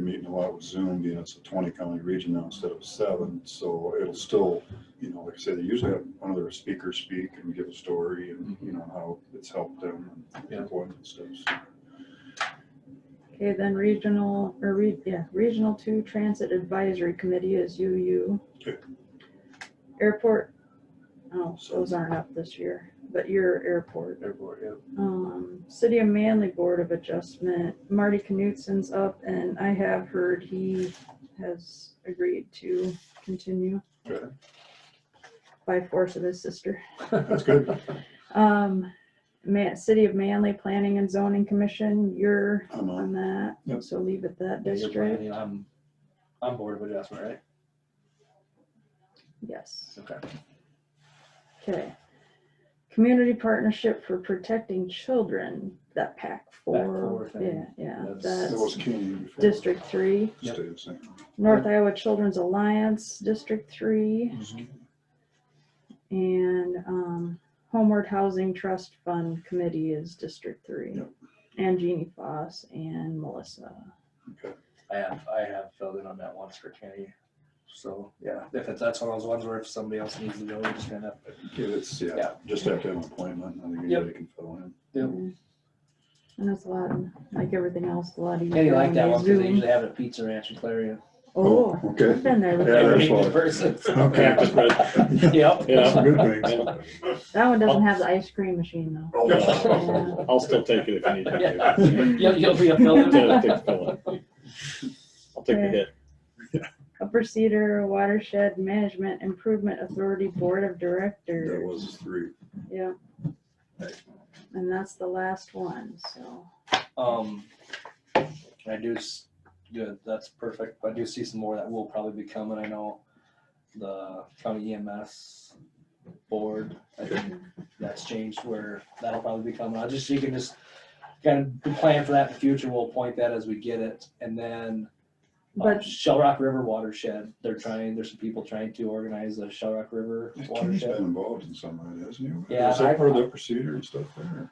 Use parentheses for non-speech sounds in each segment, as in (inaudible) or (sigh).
meeting a lot with Zoom, being it's a twenty county region now instead of seven, so it'll still, you know, like I say, they usually have one of their speakers speak and give a story and, you know, how it's helped them and Yeah. employment and stuff. so. Okay, then regional, or re, yeah, Regional Two Transit Advisory Committee is UU. Okay. Airport, oh, those aren't up this year, but your airport. Airport, yeah. Um, City of Manly Board of Adjustment, Marty Knutsen's up, and I have heard he has agreed to continue Okay. by force of his sister. That's good. Um, Ma- City of Manly Planning and Zoning Commission, you're I'm um, on. on that, Yep. so leave it that Yeah, you're district. planning, I'm, I'm board of adjustment, right? Yes, Okay. okay. Community Partnership for Protecting Children, that PAC four four, yeah, thing. yeah, That's- That was that's Keenan before. District Three. Yep. Stayed the same. North Iowa Children's Alliance, District Three, Mm-hmm. and um, Homeward Housing Trust Fund Committee is District Three. Yep. And Jeannie Foss and Melissa. Okay. I have, I have filled in on that once for Kenny. So, yeah, if it's, that's one of those ones where if somebody else needs to go, we just gonna, Yeah, it's, yeah, Yeah. just have to have an appointment. I think anybody can fill in. Yep. And it's a lot, like everything else, a lot easier. Kenny liked that on one because they Zoom. usually have a pizza ranch in Clarion. Oh, Oh, okay. I've been there. Yeah, Every before. that's (laughs) why. person. (laughs) Okay. That's Yep. a Yeah. good thing. That one Oh. doesn't have the ice cream machine though. Oh. I'll still take it if you need Yeah. to. (laughs) You'll, you'll be a builder. Yeah, take the bullet. I'll take the hit. Upper Cedar Watershed Management Improvement Authority Board of (laughs) Directors. That was three. Yeah. Right. And that's the last one, so. Um, I do, s- good, that's perfect. But I do see some more that will probably be coming. I know the county EMS board, I think that's changed where that'll probably be coming. I just, you can just kind of plan for that in the future. We'll point that as we get it. And then um, But Shell Rock River Watershed, they're trying, there's some people trying to organize the Shell Rock River Kenny's Watershed. been involved in some of it, hasn't he? Yeah, Is that I- part of the procedure and stuff there?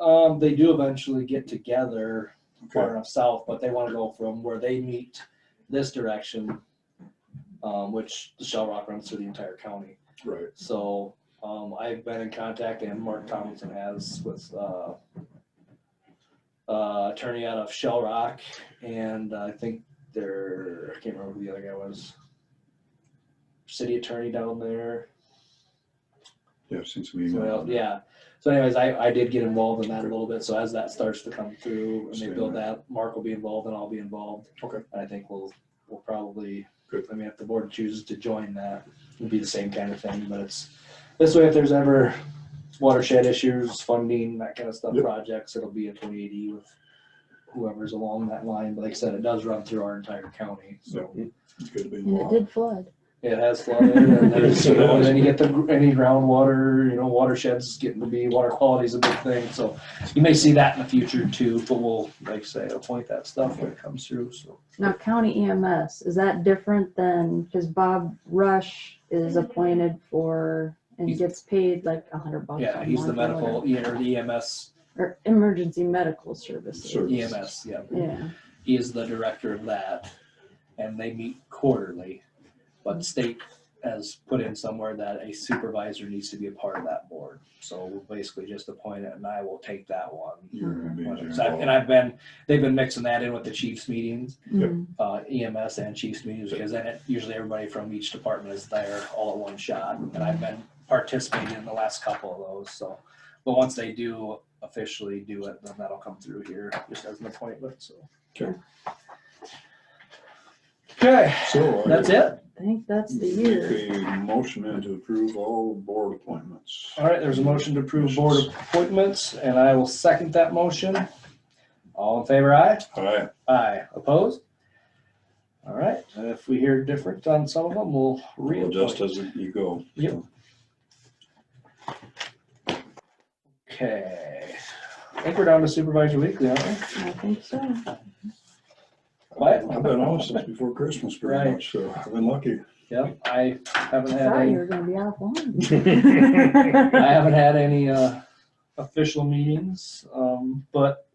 Um, they do eventually get together far Okay, enough south, but they want to go from where they meet this direction, um, which the Shell Rock runs through the entire county. right. So, um, I've been in contact and Mark Tomlinson has with, uh, uh, attorney out of Shell Rock and I think there, I can't remember who the other guy was. City attorney down there. Yeah, I've seen some Somebody emails. else, yeah. So anyways, I, I did get involved in that a little bit, so as that starts to come through and they build that, Mark will be involved and I'll be involved. Okay. And I think we'll, we'll probably, Good. I mean, if the board chooses to join that, it'd be the same kind of thing, but it's, this way, if there's ever watershed issues, funding, that kind of stuff, Yep. projects, it'll be a twenty eighty with whoever's along that line, but like I said, it does run through our entire county, so. It's good to be and it involved. did flood. It has flooded, and there's, you know, and then you get the, any groundwater, you know, watersheds getting to be, water quality is a big thing, so you may see that in the future too, but we'll, like I say, appoint that stuff when it comes through, so. Now county EMS, is that different than, because Bob Rush is appointed for and He's- gets paid like a hundred bucks. Yeah, a he's the month or medical, whatever. E- or the EMS, Or emergency medical services. Sure. EMS, E yeah, Yeah, he is the director of that, and they meet quarterly. But state has put in somewhere that a supervisor needs to be a part of that board, so we'll basically just appoint it, and I will take that one. You're gonna be whether involved. it's- I've- And I've been, they've been mixing that in with the chiefs meetings, Yep. Mm, uh, EMS and chiefs meetings, because then it- usually everybody from each department is there all at one shot. And I've been participating in the last couple of those, so, but once they do officially do it, then that'll come through here just as an appointment, so. Okay. Okay, So. I that's it. I think that's the make year. A motion and to approve all board appointments. All right, there's a motion to approve board appointments, and I will second that motion. All in favor, aye? All right, Aye, opposed? All right, and if we hear different on some of them, we'll well, just readjust. as you go. Yep. Okay, I think we're down to supervisor weekly, aren't we? I think so. What? I've been off since before Christmas pretty Right. much, so I've been lucky. Yep, I haven't had Thought you any, were gonna be off one. (laughs) (laughs) I haven't had any, uh, official meetings, um, but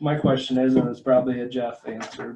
my question is, and it's probably a Jeff answer,